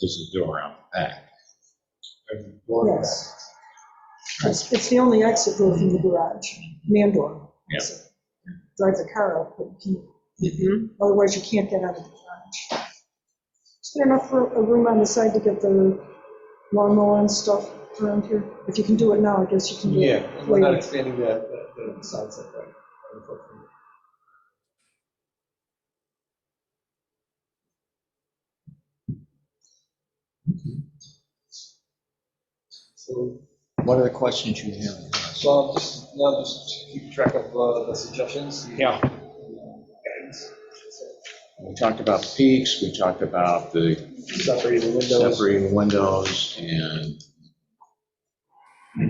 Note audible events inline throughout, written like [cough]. there's a door out back. There's a door out back. Yes. It's, it's the only exit door from the garage, man door. Yeah. So, Drive the car out, but you Mhm. can't, otherwise you can't get out of the garage. Is there enough ro- a room on the side to get the lawnmower and stuff around here? If you can do it now, I guess you can do it. Yeah, we're not later. expanding the, the the side setback. on the footprint. So, What are the questions you have? so I'll just, now just keep track of uh, the suggestions. and, Yeah. uh, guidance. We talked about the peaks, we talked about the Separating the windows, separating windows and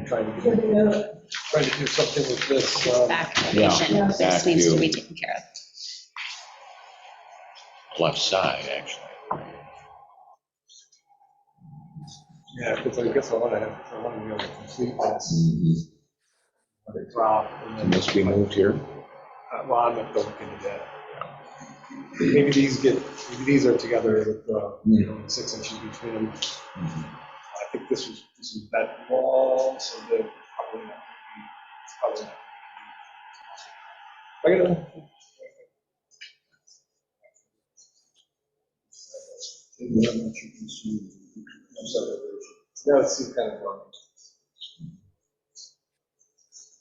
trying to, Yeah, do- yeah. trying to do something with this, uh, back elevation, Yeah. that just needs to be taken care of. left side, actually. yeah, because I guess I want to have, I want to be able to complete this, Mm-hmm. let it drop. and then- And this be moved here. Uh, Well, I'm not looking into that. Maybe these get, maybe these are together with, uh, you know, six inches between them. Mm-hmm. Mhm. I think this was, this is that wall, so they're probably not. it's probably not. I gotta. That would seem kind of wrong.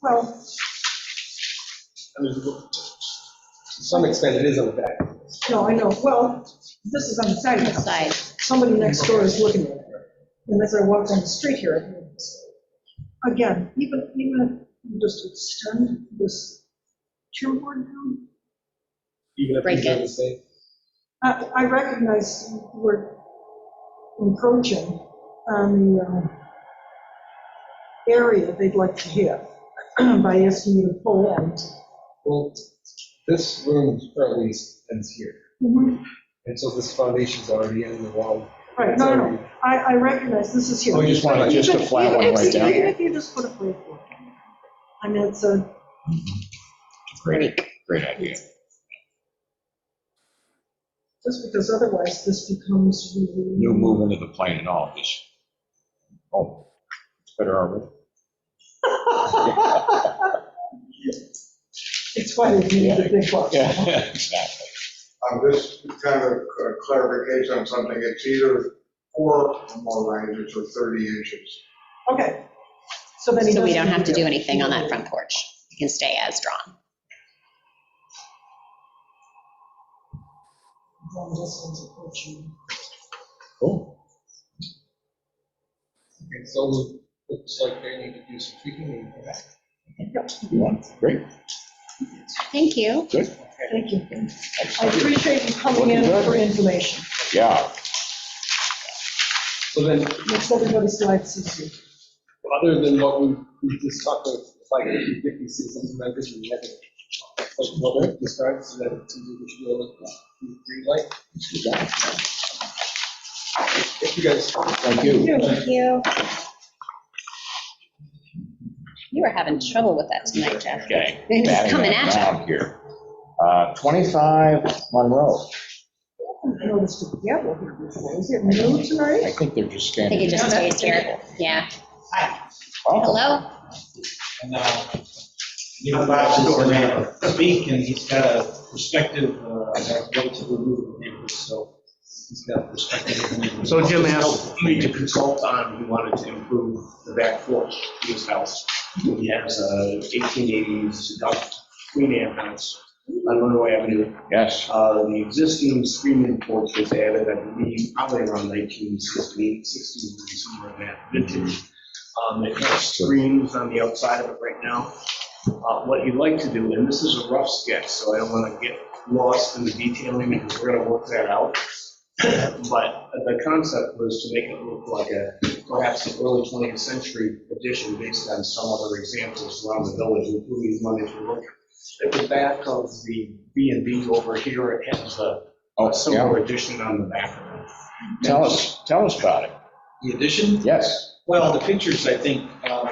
Well, I mean, To some extent, it is on the back. no, I know, well, this is on the side. The side, somebody next door is looking at it. And as I walk down the street here, I hear this. Again, even, even if you just extend this trim board down, Even if Break these are it. the same. I, I recognize we're encroaching on the um, area they'd like to have [clears throat] by asking you to pull Well, this room currently ends here, in. and so this foundation's already in the wall. Right, no, no, no, I, I recognize this is here. Oh, you just want just a flat one right down Even there? if you just put a flat one. I mean, it's a. Great, great idea. Just because otherwise this becomes. really- No movement of the plane at all, just, oh, it's better [laughs] already. [laughs] It's why they need the big box. Yeah, exactly. Um, This is kind of a clarification on something, it's either four or more ranges or 30 inches. Okay. So then he so we doesn't don't have to need do anything on that front porch. It can stay as drawn. Long distance approaching. Cool. Okay, So looks like they need to do some tweaking. and come back. You want, great, Thank you. good. Thank you. I Excellent. appreciate you coming in for information. Yeah, So then, Makes everybody's life easier. other than what we we just talked about, if I could get these things, something like this, we have it. Like what Rick described, so that it's easy to feel like green light. If you guys. thank you. Thank you. You were having trouble with that tonight, Jeff. Okay. It's batting coming at you. down Here. Uh, 25 Monroe, I haven't noticed a gavel here before. Is it new I tonight? think they're just I think standing. it just stays here. Yeah. Hello? And uh, you know, Bob's going to speak, and he's got a perspective, uh, that relatively new to him, so he's got a perspective. So Jim asked me to consult on, he wanted to improve the back porch of his house. He has uh, a 1880s Duck Queen Anne house on Monroe Avenue. Yes, Uh, The existing screening porch was added, I believe, probably around 1968, 60, somewhere in that vintage. Um, It has screens on the outside of it right now. Uh, What you'd like to do, and this is a rough sketch, so I don't want to get lost in the detailing, because we're going to work that out. [clears throat] But the concept was to make it look like a, perhaps an early 20th century addition based on some other examples around the village, including one that you look at the back of the B and B over here, it has a oh, a yeah, similar addition on the back of it. tell us, tell us about it, The addition? yes. Well, the pictures, I think, um,